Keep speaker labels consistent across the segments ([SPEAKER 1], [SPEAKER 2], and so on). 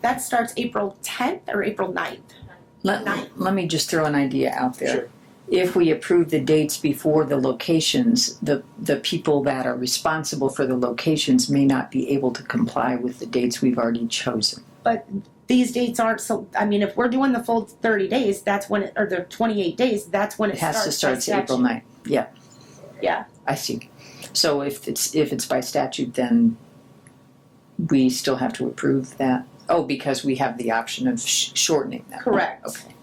[SPEAKER 1] That starts April 10th or April 9th. Nine.
[SPEAKER 2] Let, let me just throw an idea out there.
[SPEAKER 3] Sure.
[SPEAKER 2] If we approve the dates before the locations, the, the people that are responsible for the locations may not be able to comply with the dates we've already chosen.
[SPEAKER 1] These dates aren't so. I mean, if we're doing the full 30 days, that's when it, or the 28 days, that's when it,
[SPEAKER 2] It has to
[SPEAKER 1] starts by
[SPEAKER 2] start to April
[SPEAKER 1] statute.
[SPEAKER 2] 9th. Yeah.
[SPEAKER 1] Yeah.
[SPEAKER 2] I see. So if it's, if it's by statute, then we still have to approve that? Oh, because we have the option of sh- shortening that.
[SPEAKER 1] Correct.
[SPEAKER 2] Okay.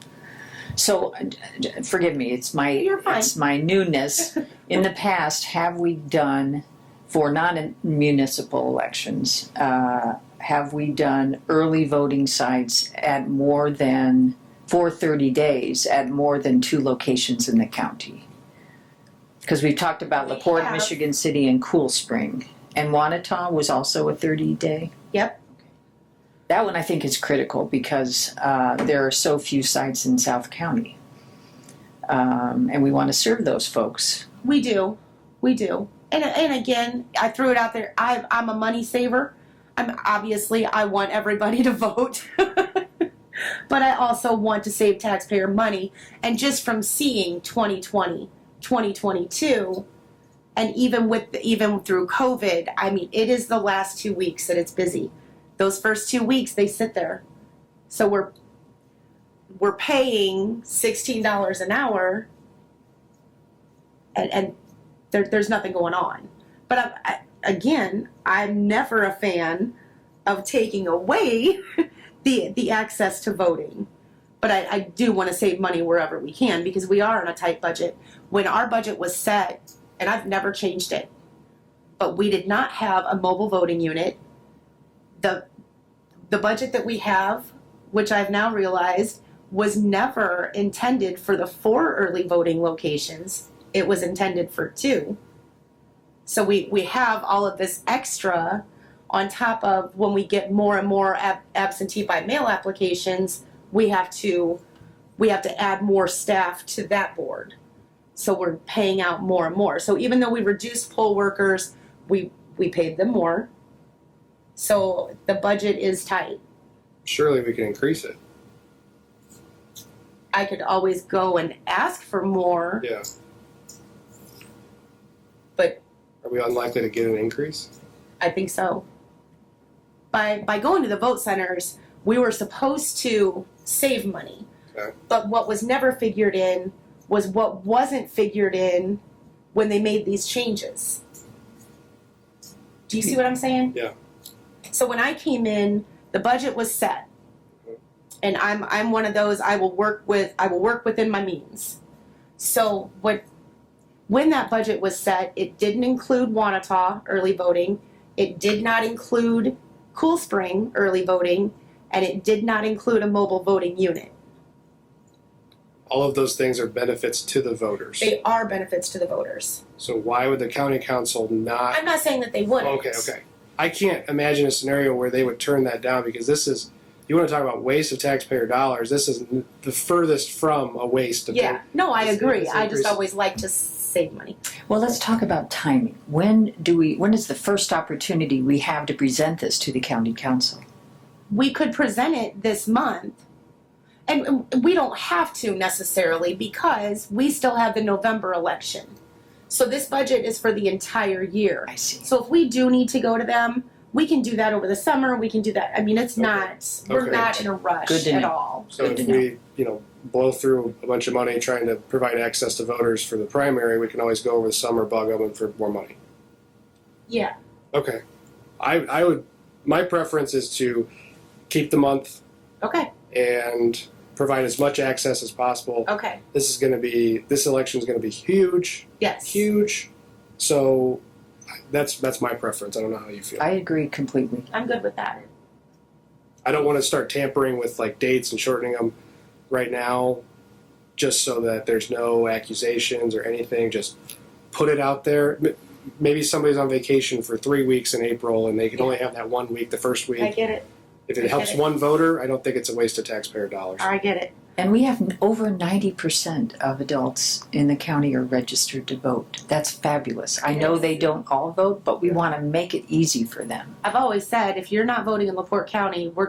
[SPEAKER 2] So, uh, d- d- forgive me, it's my,
[SPEAKER 1] You're fine.
[SPEAKER 2] it's my newness. In the past, have we done, for non-municipal elections, uh, have we done early voting sites at more than, for 30 days, at more than two locations in the county? Because we've talked about
[SPEAKER 1] We
[SPEAKER 2] LaPorte,
[SPEAKER 1] have.
[SPEAKER 2] Michigan City, and Cool Spring. And Wanata was also a 30-day?
[SPEAKER 1] Yep.
[SPEAKER 2] That one I think is critical because uh, there are so few sites in South County. Um, and we want to serve those folks.
[SPEAKER 1] We do, we do. And and again, I threw it out there. I I'm a money saver. I'm obviously I want everybody to vote. But I also want to save taxpayer money. And just from seeing 2020, 2022, and even with even through COVID, I mean, it is the last two weeks that it's busy. Those first two weeks they sit there. So we're we're paying sixteen dollars an hour and, and there, there's nothing going on. But I'm, I, again, I'm never a fan of taking away the the access to voting. But I, I do want to save money wherever we can because we are on a tight budget. When our budget was set, and I've never changed it, but we did not have a mobile voting unit. the The budget that we have, which I've now realized, was never intended for the four early voting locations it was intended for two. So we, we have all of this extra on top of when we get more and more ab- absentee by mail applications, we have to we have to add more staff to that board. So we're paying out more and more. So even though we reduced poll workers, we we paid them more. So the budget is tight.
[SPEAKER 3] Surely we can increase it.
[SPEAKER 1] I could always go and ask for more.
[SPEAKER 3] Yeah.
[SPEAKER 1] But-
[SPEAKER 3] are we unlikely to get an increase?
[SPEAKER 1] I think so. By by going to the vote centers, we were supposed to save money.
[SPEAKER 3] Okay.
[SPEAKER 1] But what was never figured in was what wasn't figured in when they made these changes. Do you see what I'm saying?
[SPEAKER 3] Yeah.
[SPEAKER 1] So when I came in, the budget was set. And I'm I'm one of those I will work with I will work within my means. So what when that budget was set, it didn't include Wanata early voting. It did not include Cool Spring early voting, and it did not include a mobile voting unit.
[SPEAKER 3] All of those things are benefits to the voters.
[SPEAKER 1] They are benefits to the voters.
[SPEAKER 3] So why would the county council not?
[SPEAKER 1] I'm not saying that they wouldn't.
[SPEAKER 3] Okay, okay. I can't imagine a scenario where they would turn that down because this is, you want to talk about waste of taxpayer dollars, this is n- the furthest from a waste of.
[SPEAKER 1] Yeah, no, I
[SPEAKER 3] It's-
[SPEAKER 1] agree.
[SPEAKER 3] it's
[SPEAKER 1] I just
[SPEAKER 3] increasing.
[SPEAKER 1] always like to save money.
[SPEAKER 2] Well, let's talk about timing. When do we, when is the first opportunity we have to present this to the county council?
[SPEAKER 1] We could present it this month, and and we don't have to necessarily because we still have the November election. So this budget is for the entire year.
[SPEAKER 2] I see.
[SPEAKER 1] So if we do need to go to them, we can do that over the summer. We can do that. I mean, it's
[SPEAKER 3] Okay.
[SPEAKER 1] not we're
[SPEAKER 3] Okay.
[SPEAKER 1] not in a rush
[SPEAKER 2] Good to
[SPEAKER 1] at
[SPEAKER 2] know.
[SPEAKER 1] all.
[SPEAKER 3] So
[SPEAKER 2] Good
[SPEAKER 3] if
[SPEAKER 2] to know.
[SPEAKER 3] we, you know, blow through a bunch of money trying to provide access to voters for the primary, we can always go over the summer, bug them for more money.
[SPEAKER 1] Yeah.
[SPEAKER 3] Okay. I, I would, my preference is to keep the month
[SPEAKER 1] Okay.
[SPEAKER 3] and provide as much access as possible.
[SPEAKER 1] Okay.
[SPEAKER 3] This is going to be, this election is going to be huge,
[SPEAKER 1] Yes.
[SPEAKER 3] huge. So that's, that's my preference. I don't know how you feel.
[SPEAKER 2] I agree completely.
[SPEAKER 1] I'm good with that.
[SPEAKER 3] I don't want to start tampering with like dates and shortening them right now just so that there's no accusations or anything. Just put it out there. M- Maybe somebody's on vacation for three weeks in April and they can only have that one week, the first week.
[SPEAKER 1] I get it.
[SPEAKER 3] If
[SPEAKER 1] I
[SPEAKER 3] it helps
[SPEAKER 1] get it.
[SPEAKER 3] one voter, I don't think it's a waste of taxpayer dollars.
[SPEAKER 1] I get it.
[SPEAKER 2] And we have over 90% of adults in the county are registered to vote. That's fabulous. I know they don't all vote, but we want to make it easy for them.
[SPEAKER 1] I've always said if you're not voting in LaPorte County, we're